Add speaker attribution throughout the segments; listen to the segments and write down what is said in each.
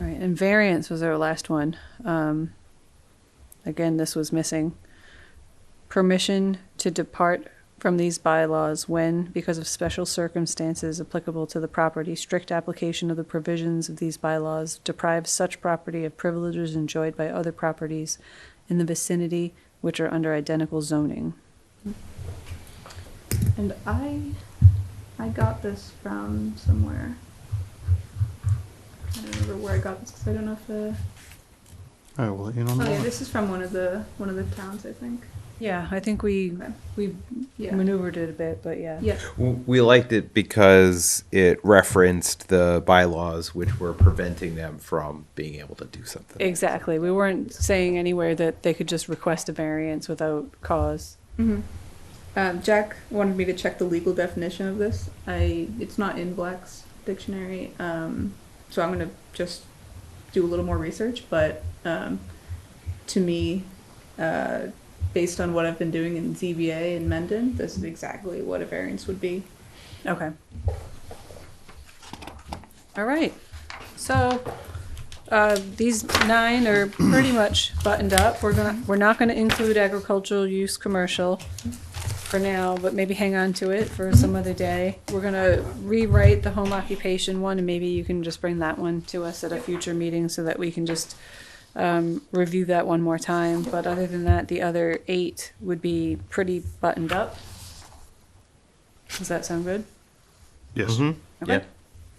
Speaker 1: Right, and variance was our last one. Um, again, this was missing. Permission to depart from these bylaws when, because of special circumstances applicable to the property, strict application of the provisions of these bylaws deprives such property of privileges enjoyed by other properties in the vicinity which are under identical zoning.
Speaker 2: And I, I got this from somewhere. I don't remember where I got this because I don't know if the.
Speaker 3: All right, we'll let you know. in the
Speaker 2: Oh yeah,
Speaker 3: morning.
Speaker 2: this is from one of the one of the towns I think.
Speaker 1: Yeah, I think we,
Speaker 2: Okay.
Speaker 1: we
Speaker 2: Yeah.
Speaker 1: maneuvered it a bit, but yeah.
Speaker 2: Yeah.
Speaker 4: W- We liked it because it referenced the bylaws, which were preventing them from being able to do something.
Speaker 1: Exactly, we weren't saying anywhere that they could just request a variance without cause.
Speaker 2: hmm Um, Jack wanted me to check the legal definition of this. I it's not in Black's dictionary, um, so I'm gonna just do a little more research. But um, to me, uh, based on what I've been doing in ZBA and Mendon, this is exactly what a variance would be.
Speaker 1: Okay. All right, so, uh, these nine are pretty much buttoned up. We're gonna, we're not gonna include agricultural use commercial for now, but maybe hang on to it for some other day. We're gonna rewrite the home occupation one, and maybe you can just bring that one to us at a future meeting so that we can just, um, review that one more time. But other than that, the other eight would be pretty buttoned up. Does that sound good?
Speaker 3: Yes.
Speaker 4: Mhm.
Speaker 1: Okay.
Speaker 4: Yeah.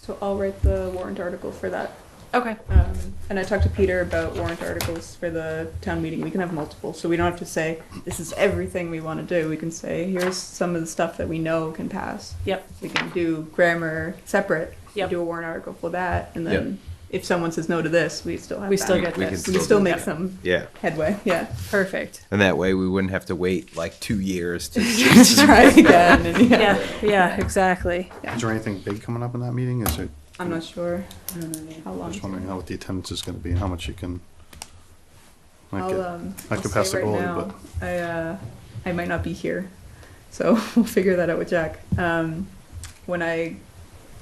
Speaker 2: So I'll write the warrant article for that.
Speaker 1: Okay.
Speaker 2: Um, and I talked to Peter about warrant articles for the town meeting. We can have multiple, so we don't have to say this is everything we want to do. We can say here's some of the stuff that we know can pass.
Speaker 1: Yep.
Speaker 2: We can do grammar separate. We
Speaker 1: Yep.
Speaker 2: Do a warrant article for that, and then if someone says no to this, we still have.
Speaker 1: We
Speaker 2: that.
Speaker 1: still
Speaker 4: We-
Speaker 1: get
Speaker 4: we
Speaker 1: this.
Speaker 2: We
Speaker 4: Still
Speaker 2: can still
Speaker 4: do
Speaker 2: make
Speaker 1: that.
Speaker 2: some
Speaker 4: Yeah.
Speaker 2: headway. Yeah.
Speaker 1: Perfect.
Speaker 4: And that way we wouldn't have to wait like two years to.
Speaker 2: Just try again. and- yeah.
Speaker 1: Yeah, yeah, exactly.
Speaker 3: Is there anything big coming up in that meeting? Is it,
Speaker 2: I'm not sure
Speaker 1: I don't know, yeah.
Speaker 2: how
Speaker 3: I'm
Speaker 2: long.
Speaker 3: just wondering how what the attendance is gonna be and how much you can. like,
Speaker 2: I'll,
Speaker 3: it-
Speaker 2: um,
Speaker 3: I
Speaker 2: I'll
Speaker 3: could pass
Speaker 2: say
Speaker 3: the
Speaker 2: right
Speaker 3: goalie,
Speaker 2: now, I, uh, I might not be here, so we'll figure that out with Jack. Um, when I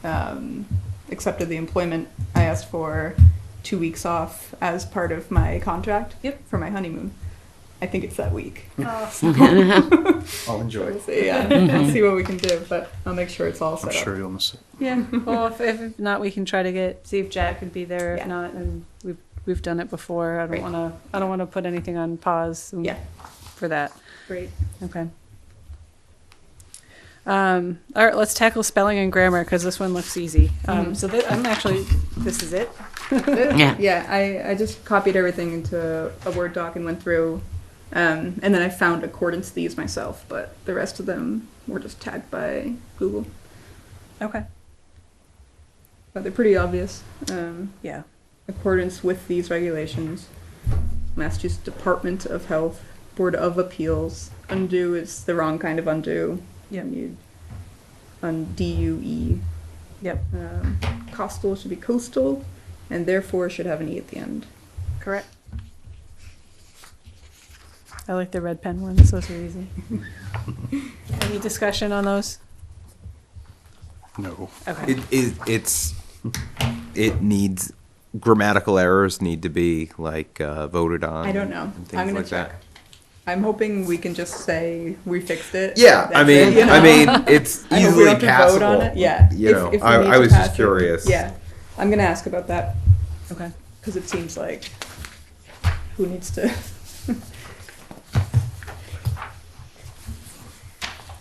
Speaker 2: um, accepted the employment, I asked for two weeks off as part of my contract. Yep. For my honeymoon. I think it's that week.
Speaker 3: I'll enjoy.
Speaker 2: We'll see, yeah. we'll see what we can do, but I'll make sure it's all
Speaker 3: I'm
Speaker 2: set up.
Speaker 3: sure you'll miss it.
Speaker 1: Yeah, well, if, if not, we can try to get, see if Jack could be there. If
Speaker 2: Yeah.
Speaker 1: not, and we've, we've done it before. I don't
Speaker 2: Great.
Speaker 1: wanna, I don't wanna put anything on pause and-
Speaker 2: Yeah.
Speaker 1: for that.
Speaker 2: Great.
Speaker 1: Okay. Um, all right, let's tackle spelling and grammar, cause this one looks easy.
Speaker 2: Mm-hmm.
Speaker 1: Um, so thi- I'm actually, this is it.
Speaker 2: yeah. I, I just copied everything into a Word doc and went through. Um, and then I found accordance these myself, but the rest of them were just tagged by Google.
Speaker 1: Okay.
Speaker 2: But they're pretty obvious. Um,
Speaker 1: Yeah.
Speaker 2: accordance with these regulations, Massachusetts Department of Health, Board of Appeals, undo is the wrong kind of undo.
Speaker 1: Yep.
Speaker 2: You- Un D-U-E.
Speaker 1: Yep.
Speaker 2: Um, coastal should be coastal, and therefore should have an E at the end.
Speaker 1: Correct. I like the red pen ones, those are easy. Any discussion on those?
Speaker 3: No.
Speaker 1: Okay.
Speaker 4: It, it, it's, it needs, grammatical errors need to be like uh, voted on.
Speaker 2: I don't know.
Speaker 4: and things
Speaker 2: I'm gonna
Speaker 4: like
Speaker 2: check.
Speaker 4: that.
Speaker 2: I'm hoping we can just say we fixed it.
Speaker 4: Yeah, I
Speaker 2: That's
Speaker 4: mean,
Speaker 2: it, you
Speaker 4: I
Speaker 2: know?
Speaker 4: mean, it's
Speaker 2: I hope we
Speaker 4: easily
Speaker 2: don't have to vote on
Speaker 4: passable.
Speaker 2: it. Yeah.
Speaker 4: You
Speaker 2: if-
Speaker 4: know,
Speaker 2: if we
Speaker 4: I-
Speaker 2: need
Speaker 4: I
Speaker 2: to
Speaker 4: was just
Speaker 2: pass it.
Speaker 4: curious.
Speaker 2: Yeah, I'm gonna ask about that
Speaker 1: Okay.
Speaker 2: because it seems like who needs to?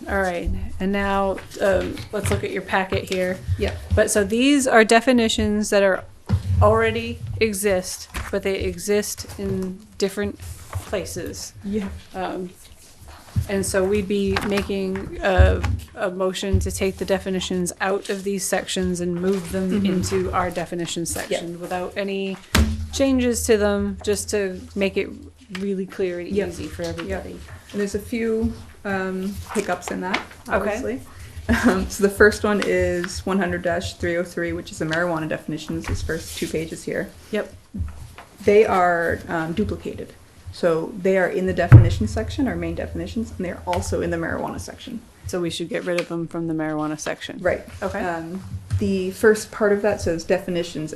Speaker 1: All right, and now, um, let's look at your packet here.
Speaker 2: Yeah.
Speaker 1: But so these are definitions that are already exist, but they exist in different places.
Speaker 2: Yeah.
Speaker 1: Um, And so we'd be making a, a motion to take the definitions out of these sections and move them into our definition section without any changes to them, just to make it really clear and
Speaker 2: Yep.
Speaker 1: easy for everybody.
Speaker 2: And there's a few um, hiccups in that,
Speaker 1: Okay.
Speaker 2: obviously. Um, so the first one is 100-303, which is the marijuana definitions. These first two pages here.
Speaker 1: Yep,
Speaker 2: they are um, duplicated. So they are in the definition section, our main definitions, and they're also in the marijuana section.
Speaker 1: so we should get rid of them from the marijuana section.
Speaker 2: Right.
Speaker 1: Okay.
Speaker 2: Um, the first part of that says definitions